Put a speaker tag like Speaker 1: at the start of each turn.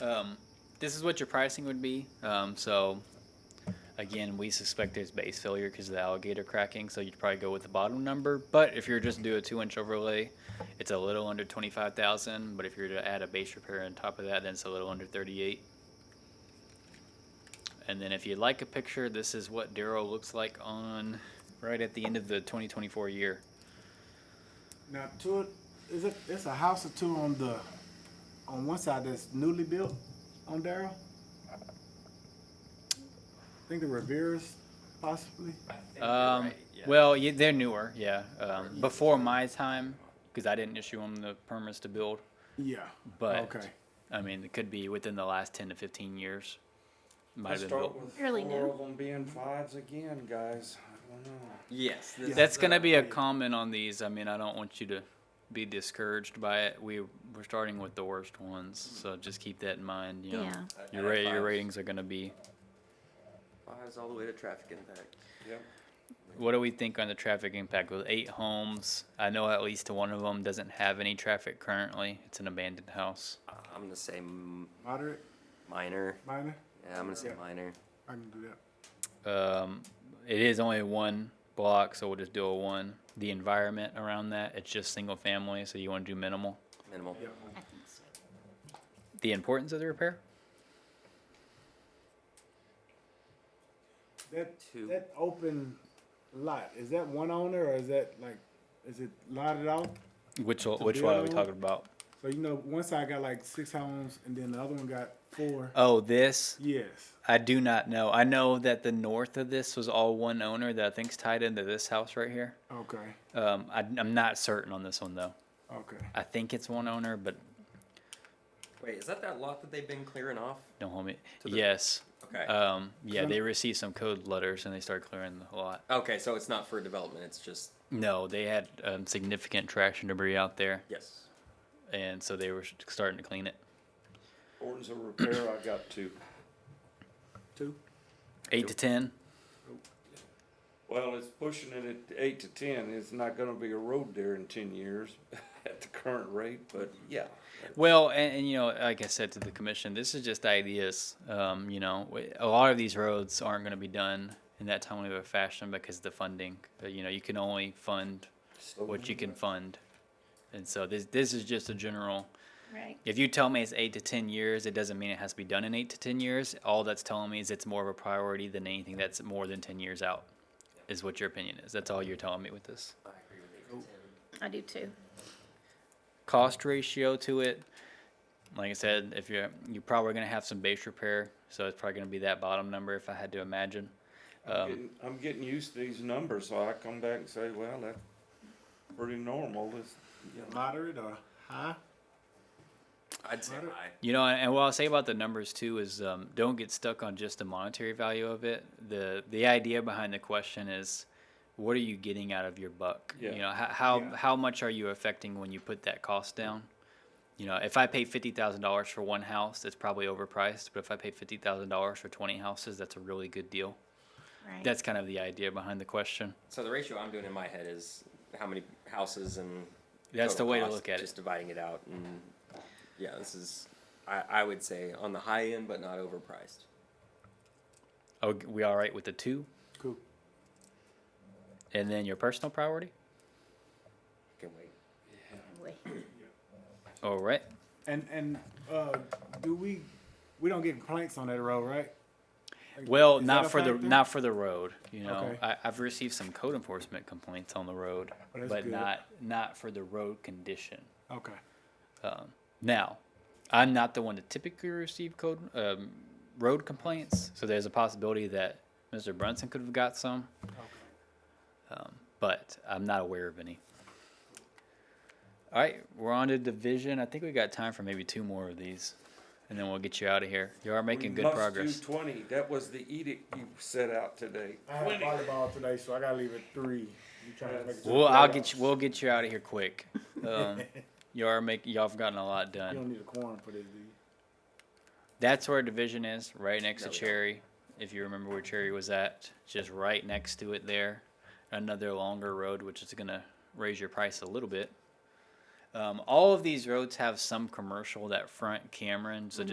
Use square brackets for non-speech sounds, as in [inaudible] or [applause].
Speaker 1: um, this is what your pricing would be. Um, so, again, we suspect there's base failure because of the alligator cracking. So you'd probably go with the bottom number. But if you're just to do a two-inch overlay, it's a little under twenty-five thousand. But if you're to add a base repair on top of that, then it's a little under thirty-eight. And then if you'd like a picture, this is what Darrow looks like on right at the end of the 2024 year.
Speaker 2: Now, two, is it? It's a house or two on the, on one side that's newly built, on Darrell. I think the Rivera's possibly.
Speaker 1: Um, Well, yeah, they're newer, yeah. Um, before my time, because I didn't issue them the permits to build.
Speaker 2: Yeah.
Speaker 1: But
Speaker 2: okay.
Speaker 1: I mean, it could be within the last 10 to 15 years. Might
Speaker 3: Let's
Speaker 1: have been
Speaker 3: start
Speaker 1: built.
Speaker 3: with
Speaker 4: Really
Speaker 3: four
Speaker 4: new.
Speaker 3: of them being fives again, guys. I don't know.
Speaker 5: Yes. this
Speaker 1: That's
Speaker 5: is,
Speaker 1: going to
Speaker 5: uh,
Speaker 1: be a comment on these. I mean, I don't want you to be discouraged by it. We we're starting with the worst ones, so just keep that in mind. You know,
Speaker 4: Yeah.
Speaker 1: your
Speaker 5: At
Speaker 1: rate, your
Speaker 5: fives.
Speaker 1: ratings are going to be.
Speaker 5: Fives all the way to traffic impact.
Speaker 3: Yep.
Speaker 1: What do we think on the traffic impact with eight homes? I know at least one of them doesn't have any traffic currently. It's an abandoned house.
Speaker 5: I'm gonna say m-
Speaker 2: Moderate,
Speaker 5: minor.
Speaker 2: minor.
Speaker 5: Yeah, I'm gonna say
Speaker 2: Yeah.
Speaker 5: minor.
Speaker 2: I can do that.
Speaker 1: Um, it is only one block, so we'll just do a one. The environment around that, it's just single family, so you want to do minimal.
Speaker 5: Minimal.
Speaker 2: Yeah.
Speaker 4: I think so.
Speaker 1: The importance of the repair?
Speaker 2: That
Speaker 5: Two.
Speaker 2: that open lot is that one owner or is that like, is it lotted out?
Speaker 1: Which o-
Speaker 2: To
Speaker 1: which one are we
Speaker 2: build?
Speaker 1: talking about?
Speaker 2: So you know, one side got like six homes and then the other one got four.
Speaker 1: Oh, this
Speaker 2: Yes.
Speaker 1: I do not know. I know that the north of this was all one owner that I think's tied into this house right here.
Speaker 2: Okay.
Speaker 1: Um, I, I'm not certain on this one though.
Speaker 2: Okay.
Speaker 1: I think it's one owner, but
Speaker 5: Wait, is that that lot that they've been clearing off?
Speaker 1: Don't hold me.
Speaker 5: To the-
Speaker 1: yes.
Speaker 5: Okay.
Speaker 1: Um, yeah,
Speaker 2: Can-
Speaker 1: they received some code letters and they started clearing the lot.
Speaker 5: okay, so it's not for development. It's just
Speaker 1: No, they had um, significant traction debris out there,
Speaker 5: yes.
Speaker 1: and so they were s- starting to clean it.
Speaker 3: Ordinance of repair, I got two.
Speaker 2: Two.
Speaker 1: Eight to ten.
Speaker 3: Well, it's pushing it at eight to ten. It's not gonna be a road there in ten years [laughs] at the current rate, but yeah.
Speaker 1: Well, and, and you know, like I said to the commission, this is just ideas. Um, you know, w- a lot of these roads aren't going to be done in that timely of a fashion because the funding. uh, You know, you can only fund
Speaker 3: So-
Speaker 1: what you can fund, and so this this is just a general.
Speaker 4: Right.
Speaker 1: If you tell me it's eight to ten years, it doesn't mean it has to be done in eight to ten years. All that's telling me is it's more of a priority than anything that's more than ten years out, is what your opinion is. That's all you're telling me with this.
Speaker 5: I agree with eight to ten.
Speaker 4: I do too.
Speaker 1: Cost ratio to it, like I said, if you're you're probably gonna have some base repair, so it's probably gonna be that bottom number if I had to imagine.
Speaker 3: I'm
Speaker 1: Um,
Speaker 3: getting- I'm getting used to these numbers, so I come back and say, well, that's pretty normal. It's, you know,
Speaker 2: Moderate or high?
Speaker 5: I'd say
Speaker 2: Moderate.
Speaker 5: high.
Speaker 1: You know, and what I'll say about the numbers too is um, don't get stuck on just the monetary value of it. the The idea behind the question is, what are you getting out of your buck?
Speaker 3: Yeah.
Speaker 1: You know, how how,
Speaker 2: Yeah.
Speaker 1: how much are you affecting when you put that cost down? You know, if I pay fifty thousand dollars for one house, that's probably overpriced. But if I pay fifty thousand dollars for twenty houses, that's a really good deal.
Speaker 4: Right.
Speaker 1: That's kind of the idea behind the question.
Speaker 5: So the ratio I'm doing in my head is how many houses and.
Speaker 1: That's
Speaker 5: total
Speaker 1: the way to
Speaker 5: cost,
Speaker 1: look at it.
Speaker 5: Just dividing it out, and yeah, this is. I, I would say on the high end, but not overpriced.
Speaker 1: Oh, we all right with the two,
Speaker 2: Cool.
Speaker 1: and then your personal priority.
Speaker 5: Can wait.
Speaker 4: Wait.
Speaker 1: All right.
Speaker 2: And and uh, do we we don't get complaints on that road, right?
Speaker 1: Well,
Speaker 2: Is that a
Speaker 1: not for the
Speaker 2: factor?
Speaker 1: not for the road. You know,
Speaker 2: Okay.
Speaker 1: I, I've received some code enforcement complaints on the road,
Speaker 2: Oh, that's
Speaker 1: but
Speaker 2: good.
Speaker 1: not not for the road condition.
Speaker 2: Okay.
Speaker 1: Now, I'm not the one to typically receive code um, road complaints, so there's a possibility that Mr. Brunson could have got some, um, but I'm not aware of any. All right, we're on to division. I think we got time for maybe two more of these, and then we'll get you out of here. You are making
Speaker 3: we
Speaker 1: good
Speaker 3: must
Speaker 1: progress.
Speaker 3: do Twenty, that was the edict you set out today.
Speaker 2: I have volleyball today, so I gotta leave at three. You trying to make it to the
Speaker 1: Well, I'll
Speaker 2: playoffs.
Speaker 1: get you. We'll get you out of here
Speaker 3: [laughs]
Speaker 1: quick. Um, you are make. Y'all have gotten a lot
Speaker 2: You
Speaker 1: done.
Speaker 2: don't need a quorum for this, do you?
Speaker 1: That's where division is, right next to
Speaker 5: No, we don't.
Speaker 1: Cherry. If you remember where Cherry was at, just right next to it there. Another longer road, which is gonna raise your price a little bit. Um, all of these roads have some commercial that front Cameron, so